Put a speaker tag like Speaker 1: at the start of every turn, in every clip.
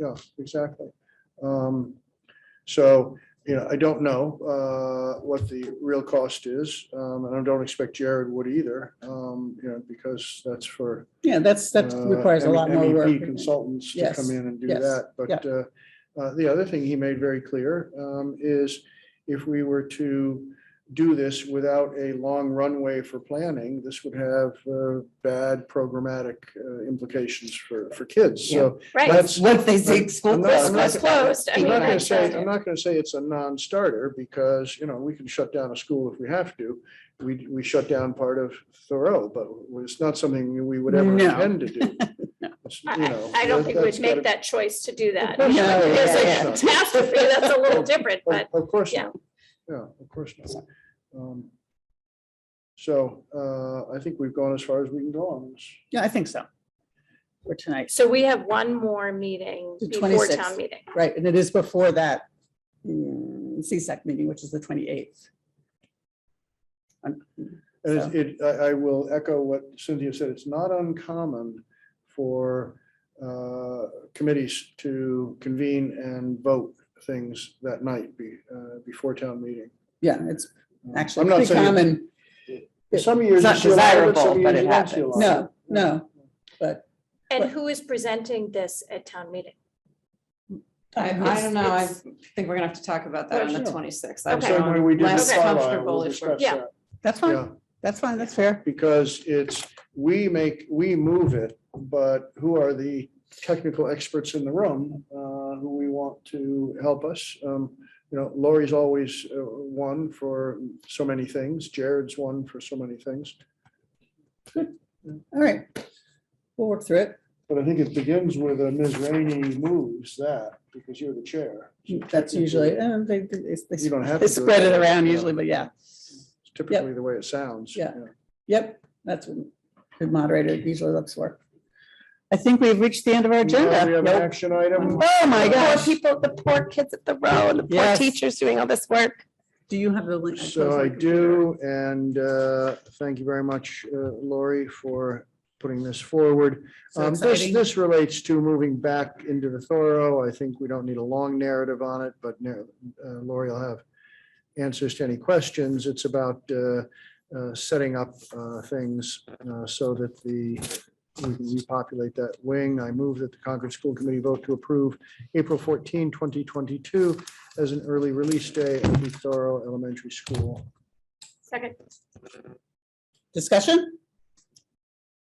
Speaker 1: yeah, exactly. Um, So, you know, I don't know uh, what the real cost is, um, and I don't expect Jared would either, um, you know, because that's for.
Speaker 2: Yeah, that's, that
Speaker 1: uh,
Speaker 2: requires a
Speaker 1: M-
Speaker 2: lot more
Speaker 1: MEP
Speaker 2: work.
Speaker 1: Consultants to
Speaker 2: Yes,
Speaker 1: come in and do
Speaker 2: yes,
Speaker 1: that. But uh, uh, the other thing he made very clear um, is if we were to do this without a long runway for planning, this would have uh, bad programmatic uh, implications for, for kids. So
Speaker 3: Right.
Speaker 1: that's,
Speaker 4: Once they say
Speaker 1: Right.
Speaker 4: school
Speaker 1: I'm not-
Speaker 4: closed,
Speaker 1: I'm not-
Speaker 4: that's
Speaker 3: School's closed. I
Speaker 1: I'm
Speaker 3: mean,
Speaker 1: not gonna
Speaker 3: like,
Speaker 1: say, I'm not gonna say it's a non-starter because, you know, we can shut down a school if we have to. We, we shut down part of Thoreau, but it's not something we would ever
Speaker 2: No.
Speaker 1: intend to do. It's, you
Speaker 3: I,
Speaker 1: know,
Speaker 3: I- I don't think
Speaker 1: that's
Speaker 3: we'd make
Speaker 1: gotta-
Speaker 3: that choice to do that.
Speaker 1: No,
Speaker 3: If
Speaker 2: yeah,
Speaker 3: There's
Speaker 4: yeah.
Speaker 3: a catastrophe, that's a little different,
Speaker 1: Of
Speaker 3: but
Speaker 1: of course
Speaker 3: yeah.
Speaker 1: not. Yeah, of course not. Um, So uh, I think we've gone as far as we can go on this.
Speaker 2: Yeah, I think so. For tonight,
Speaker 3: so we have one more meeting
Speaker 2: The
Speaker 3: before
Speaker 2: 26th.
Speaker 3: town meeting.
Speaker 2: right, and it is before that mm, CSAC meeting, which is the twenty-eighth.
Speaker 1: And it's- it, I, I will echo what Cynthia said, it's not uncommon for uh, committees to convene and vote things that night be, uh, before town meeting. Um,
Speaker 2: Yeah, it's
Speaker 1: I'm
Speaker 2: actually
Speaker 1: not
Speaker 2: pretty
Speaker 1: saying-
Speaker 2: common.
Speaker 1: Some years.
Speaker 4: It's not
Speaker 1: you see a lot of it, some
Speaker 4: desirable, but
Speaker 1: years
Speaker 4: it
Speaker 1: you don't see a
Speaker 4: happens.
Speaker 1: lot of
Speaker 2: No, no, but.
Speaker 3: And
Speaker 2: But-
Speaker 3: who is presenting this at town meeting?
Speaker 4: I, I
Speaker 3: It's-
Speaker 4: don't know. I
Speaker 3: it's-
Speaker 4: think we're gonna have to talk about that on
Speaker 1: Well,
Speaker 4: the
Speaker 1: sure.
Speaker 4: twenty-sixth.
Speaker 1: it.
Speaker 3: Okay.
Speaker 1: Same way we did
Speaker 4: Less
Speaker 1: with Carlisle, we'll
Speaker 4: comfortable if we're-
Speaker 1: discuss
Speaker 3: Yeah.
Speaker 1: that.
Speaker 2: That's
Speaker 1: Yeah,
Speaker 2: fine, that's fine, that's fair.
Speaker 1: because it's, we make, we move it, but who are the technical experts in the room uh, who we want to help us? Um, You know, Lori's always uh, one for so many things. Jared's one for so many things.
Speaker 2: All right. We'll work through it.
Speaker 1: But I think it begins with uh, Ms. Rainey moves that because you're the chair.
Speaker 2: That's usually, uh, they, they- they-
Speaker 1: You don't have.
Speaker 2: they
Speaker 1: to do
Speaker 2: spread it around usually, but yeah.
Speaker 1: It's Typically the way it sounds.
Speaker 2: Yeah. Yep, that's what the moderator usually looks for. I think we've reached the end of our
Speaker 1: Now We
Speaker 2: agenda.
Speaker 1: have an
Speaker 2: Nope.
Speaker 1: action item.
Speaker 3: Oh,
Speaker 2: my gosh.
Speaker 3: Poor people, the poor kids at the row and the
Speaker 2: Yes.
Speaker 3: doing all this work.
Speaker 2: Do you have the link?
Speaker 1: So I do, and uh, thank you very much, uh, Lori, for putting this forward.
Speaker 2: So
Speaker 1: Um, This,
Speaker 2: exciting.
Speaker 1: this relates to moving back into the Thorough. I think we don't need a long narrative on it, but nar- uh, Lori will have answers to any questions. It's about uh, uh, setting up uh, things uh, so that the, we can repopulate that wing. I move that the Concord School Committee vote to approve April 14, 2022 as an early release day at the Thorough Elementary School.
Speaker 3: Second,
Speaker 2: Discussion?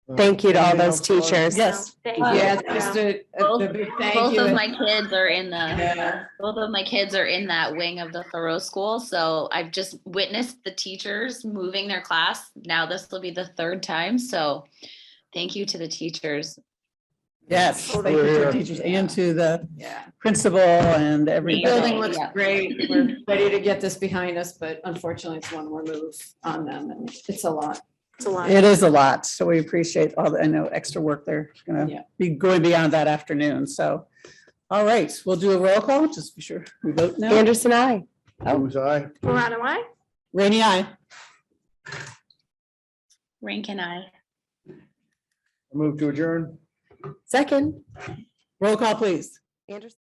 Speaker 1: Uh,
Speaker 5: Thank you to all
Speaker 1: anything
Speaker 5: those
Speaker 1: else, Laura?
Speaker 5: teachers.
Speaker 2: Yes.
Speaker 3: thank you.
Speaker 4: Yeah,
Speaker 3: Yeah.
Speaker 4: just a, a-
Speaker 6: Both
Speaker 4: a big thank
Speaker 6: both
Speaker 4: you.
Speaker 6: of
Speaker 4: and-
Speaker 6: my kids are in
Speaker 4: Yeah.
Speaker 6: the, both of my kids are in that wing of the Thoreau School, so I've just witnessed the teachers moving their class. Now this will be the third time, so thank you to the teachers.
Speaker 2: Yes. Thank you to
Speaker 1: We're-
Speaker 2: the teachers and to the
Speaker 4: Yeah.
Speaker 2: principal and
Speaker 4: The
Speaker 2: everybody.
Speaker 4: Building looks
Speaker 6: Yeah.
Speaker 4: great. We're ready to get this behind us, but unfortunately it's one more move on them and it's a lot.
Speaker 3: It's a lot.
Speaker 2: It is a lot, so we appreciate all the, I know, extra work they're
Speaker 4: Yeah.
Speaker 2: gonna be going beyond that afternoon, so. All right, we'll do a roll call, just be sure we vote now.
Speaker 5: Anderson, I.
Speaker 1: Booth, aye.
Speaker 3: Marana, why?
Speaker 2: Rainy eye.
Speaker 6: Rank and I.
Speaker 1: Move to adjourn.
Speaker 5: Second.
Speaker 2: Roll call, please.
Speaker 5: Anderson.